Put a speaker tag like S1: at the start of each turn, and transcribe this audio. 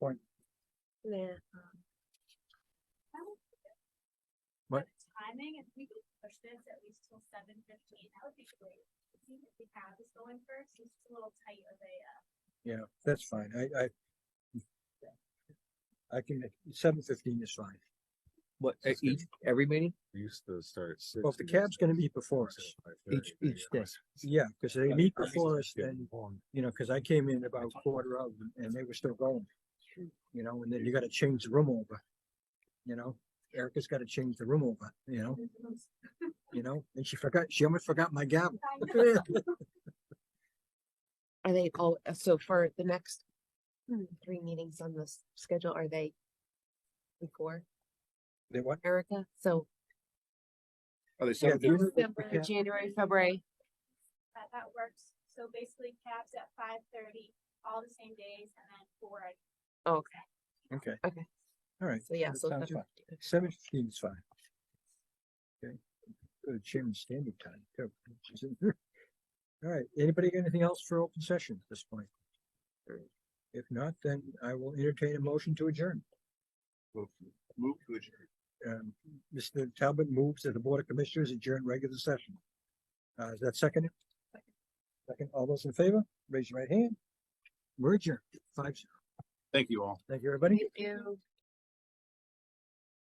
S1: Yeah.
S2: What?
S3: Timing, if we could push this at least till seven fifteen, that would be great. It seems like we have this going first, it's just a little tight of a, uh,
S2: Yeah, that's fine. I, I. I can, seven fifteen is fine.
S4: What, at
S5: Just
S4: each, every meeting?
S5: We used to start at six.
S2: Well, if the cab's gonna be before us, each, each day. Yeah, because they meet before us then, you know, because I came in about quarter of them and they were still going. You know, and then you gotta change the room over. You know, Erica's gotta change the room over, you know, you know, and she forgot, she almost forgot my gavel.
S1: Are they all, uh, so for the next three meetings on this schedule, are they before
S2: They what?
S1: Erica? So
S4: Are they
S2: Yeah,
S4: seven
S2: you
S4: fifty?
S2: heard-
S1: December,
S2: yeah.
S1: January, February,
S3: that, that works. So basically cabs at five thirty, all the same days, and then four at
S1: oh, okay,
S2: Okay.
S1: Okay.
S2: All right,
S1: so yeah,
S2: That
S1: so.
S2: sounds
S1: February.
S2: seven fifteen is fine. Okay, go to chairman's standing time. too. All right, anybody got anything else for open session at this point? If not, then I will entertain a motion to adjourn.
S4: Move to adjourn.
S2: Um, Mr. Talbot moves that the Board of Commissioners adjourn regular session. Uh, is that second? Second, all those in favor, raise your right hand. We're adjourned, five, zero.
S4: Thank you all.
S2: thank you, everybody.
S1: Thank you.